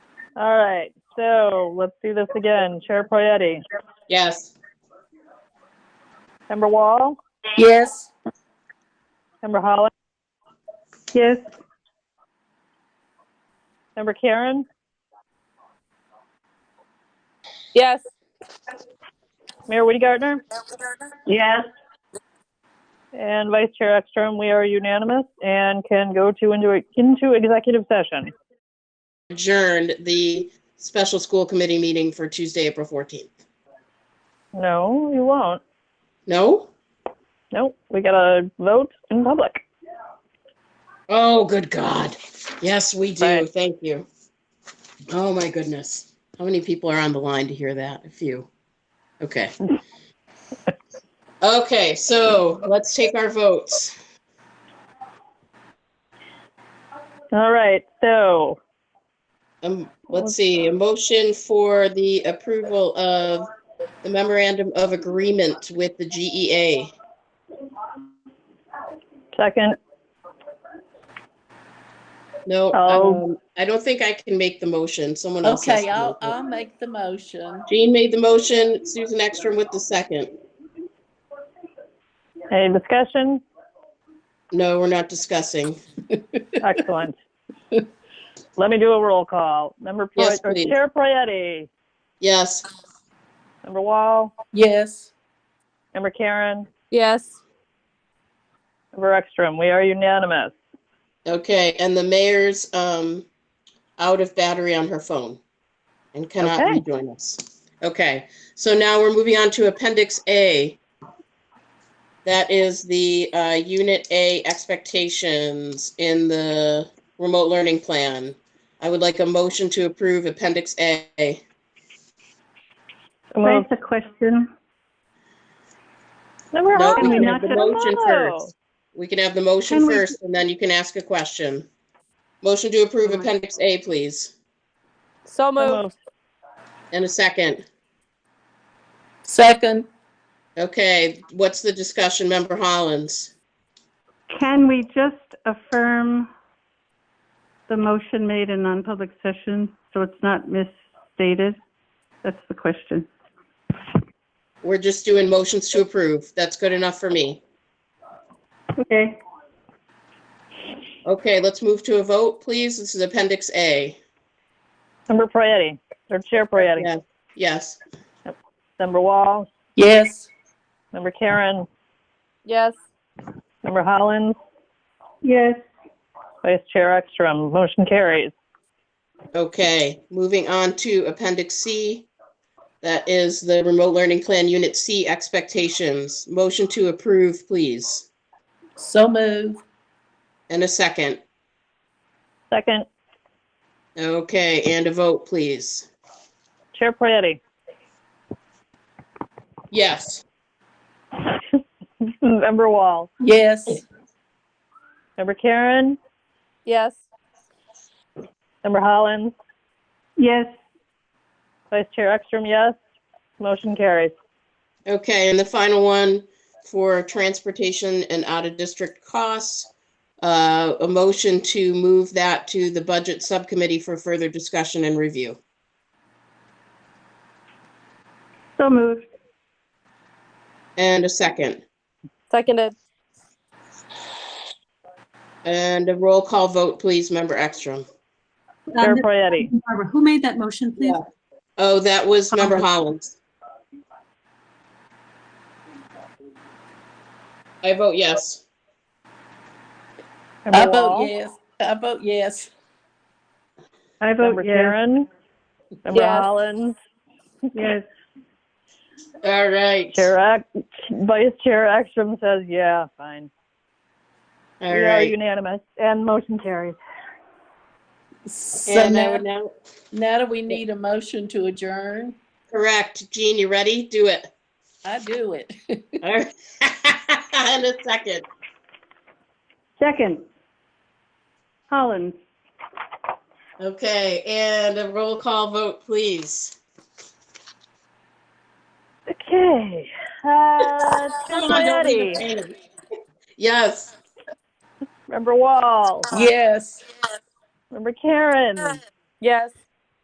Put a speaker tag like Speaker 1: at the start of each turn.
Speaker 1: All right, so let's do this again. Chair Poyetty,
Speaker 2: Yes.
Speaker 1: Member Wall,
Speaker 3: Yes.
Speaker 1: Member Holland? Yes. Member Karen,
Speaker 3: Yes.
Speaker 1: Mayor Woody Gardner,
Speaker 3: Yes.
Speaker 1: and Vice Chair Ekstrom, we are unanimous and can go to into, into executive session.
Speaker 2: Adjourned the special school committee meeting for Tuesday, April 14th.
Speaker 1: No, you won't.
Speaker 2: No?
Speaker 1: Nope, we gotta vote in public.
Speaker 2: Oh, good God. Yes, we do.
Speaker 1: Right.
Speaker 2: Thank you. Oh, my goodness. How many people are on the line to hear that? A few. Okay. Okay, so let's take our votes.
Speaker 1: All right, so
Speaker 2: Um, let's see, a motion for the approval of the memorandum of agreement with the E GEA.
Speaker 1: second,
Speaker 2: No,
Speaker 1: Oh.
Speaker 2: um, I don't think I can make the motion. Someone else has
Speaker 3: Okay,
Speaker 2: to
Speaker 3: I'll,
Speaker 2: make
Speaker 3: I'll
Speaker 2: it.
Speaker 3: make the motion.
Speaker 2: Jean made the motion, Susan Ekstrom with the second.
Speaker 1: any discussion?
Speaker 2: No, we're not discussing.
Speaker 1: Excellent. Let me do a roll call. Member Poy-
Speaker 2: Yes,
Speaker 1: or
Speaker 2: please.
Speaker 1: Chair Poyetty,
Speaker 2: Yes,
Speaker 1: Member Wall,
Speaker 3: Yes.
Speaker 1: Member Karen,
Speaker 3: Yes.
Speaker 1: Member Ekstrom, we are unanimous.
Speaker 2: okay, and the mayor's, um, out of battery on her phone and cannot
Speaker 1: Okay.
Speaker 2: rejoin us. Okay, so now we're moving on to Appendix A. That is the, uh, Unit A expectations in the remote learning plan. I would like a motion to approve Appendix A.
Speaker 4: Raise
Speaker 1: Move.
Speaker 4: a question.
Speaker 1: Member
Speaker 2: No,
Speaker 4: Can we
Speaker 1: Holland,
Speaker 4: not
Speaker 1: come
Speaker 4: have
Speaker 2: the motion
Speaker 1: on.
Speaker 2: first? We can have the motion
Speaker 4: Can we-
Speaker 2: first, and then you can ask a question. Motion to approve Appendix A, please,
Speaker 5: So
Speaker 1: So
Speaker 5: moved.
Speaker 1: moved.
Speaker 2: and a second.
Speaker 3: Second.
Speaker 2: Okay, what's the discussion, Member Hollins?
Speaker 4: Can we just affirm the motion made in non-public session so it's not misstated? That's the question.
Speaker 2: We're just doing motions to approve. That's good enough for me.
Speaker 4: Okay.
Speaker 2: Okay, let's move to a vote, please. This is Appendix A.
Speaker 1: Member Poyetty, or Chair Poyetty,
Speaker 2: Yeah. Yes,
Speaker 1: Member Wall,
Speaker 3: Yes.
Speaker 1: Member Karen,
Speaker 5: Yes.
Speaker 1: Member Holland,
Speaker 4: Yes.
Speaker 1: Vice Chair Ekstrom, motion carries.
Speaker 2: okay. Moving on to Appendix C. That is the Remote Learning Plan Unit C expectations. Motion to approve, please,
Speaker 3: So move.
Speaker 2: and a second.
Speaker 1: Second,
Speaker 2: Okay, and a vote, please.
Speaker 1: Chair Poyetty,
Speaker 2: Yes.
Speaker 1: Member Wall,
Speaker 3: Yes.
Speaker 1: Member Karen,
Speaker 5: Yes.
Speaker 1: Member Hollins,
Speaker 4: Yes.
Speaker 1: Vice Chair Ekstrom, yes. Motion carries.
Speaker 2: Okay, and the final one for transportation and out-of-district costs. Uh, a motion to move that to the budget subcommittee for further discussion and review.
Speaker 4: So moved.
Speaker 2: And a second.
Speaker 5: Seconded.
Speaker 2: And a roll call vote, please, Member Ekstrom.
Speaker 1: Chair
Speaker 6: Um,
Speaker 1: Poyetty,
Speaker 6: Barbara, who made that motion, please?
Speaker 2: Oh, that was Member Hollins. I vote yes.
Speaker 3: I
Speaker 1: Member
Speaker 3: vote
Speaker 1: Wall,
Speaker 3: yes. I vote yes.
Speaker 4: I
Speaker 1: Member
Speaker 4: vote yes.
Speaker 1: Karen, Member
Speaker 5: Yes.
Speaker 1: Hollins,
Speaker 4: Yes.
Speaker 2: All right.
Speaker 1: Chair, Ek- Vice Chair Ekstrom says, yeah, fine.
Speaker 2: All
Speaker 1: We are
Speaker 2: right.
Speaker 1: unanimous and motion carries.
Speaker 3: So
Speaker 2: And I
Speaker 3: now,
Speaker 2: would now,
Speaker 3: now do we need a motion to adjourn?
Speaker 2: correct. Jean, you ready? Do it.
Speaker 3: I do it.
Speaker 2: All right. In a second.
Speaker 4: Second. Collins.
Speaker 2: Okay, and a roll call vote, please.
Speaker 1: Okay. Uh, Chair
Speaker 2: Someone don't leave
Speaker 1: Poyetty,
Speaker 2: a painting. Yes,
Speaker 1: Member Wall,
Speaker 3: Yes.
Speaker 1: Member Karen,
Speaker 5: Yes.